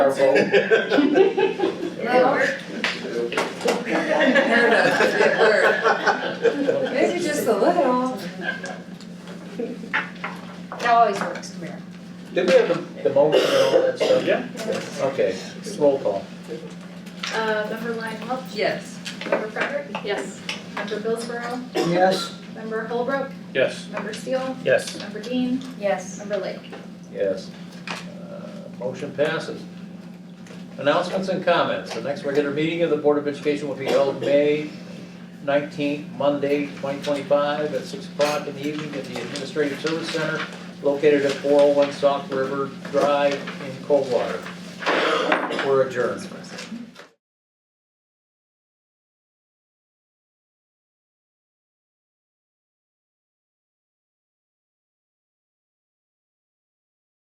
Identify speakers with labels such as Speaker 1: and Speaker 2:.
Speaker 1: powerful.
Speaker 2: Fair enough, good word. Maybe just a little.
Speaker 3: It always works, come here.
Speaker 1: Did we have the, the motion and all that stuff?
Speaker 4: Yeah.
Speaker 1: Okay, it's roll call.
Speaker 5: Uh, member Lionel,
Speaker 2: Yes.
Speaker 5: member Frederick,
Speaker 3: Yes.
Speaker 5: member Billsborough,
Speaker 1: Yes.
Speaker 5: member Holbrook,
Speaker 4: Yes.
Speaker 5: member Steele,
Speaker 4: Yes.
Speaker 5: member Dean,
Speaker 3: Yes.
Speaker 5: member Lake.
Speaker 1: Yes. Uh, Motion passes. Announcements and comments. The next regular meeting of the Board of Education will be held May nineteenth, Monday, twenty twenty-five, at six o'clock in the evening at the Administrative Service Center located at four oh one Soft River Drive in Coldwater. We're adjourned.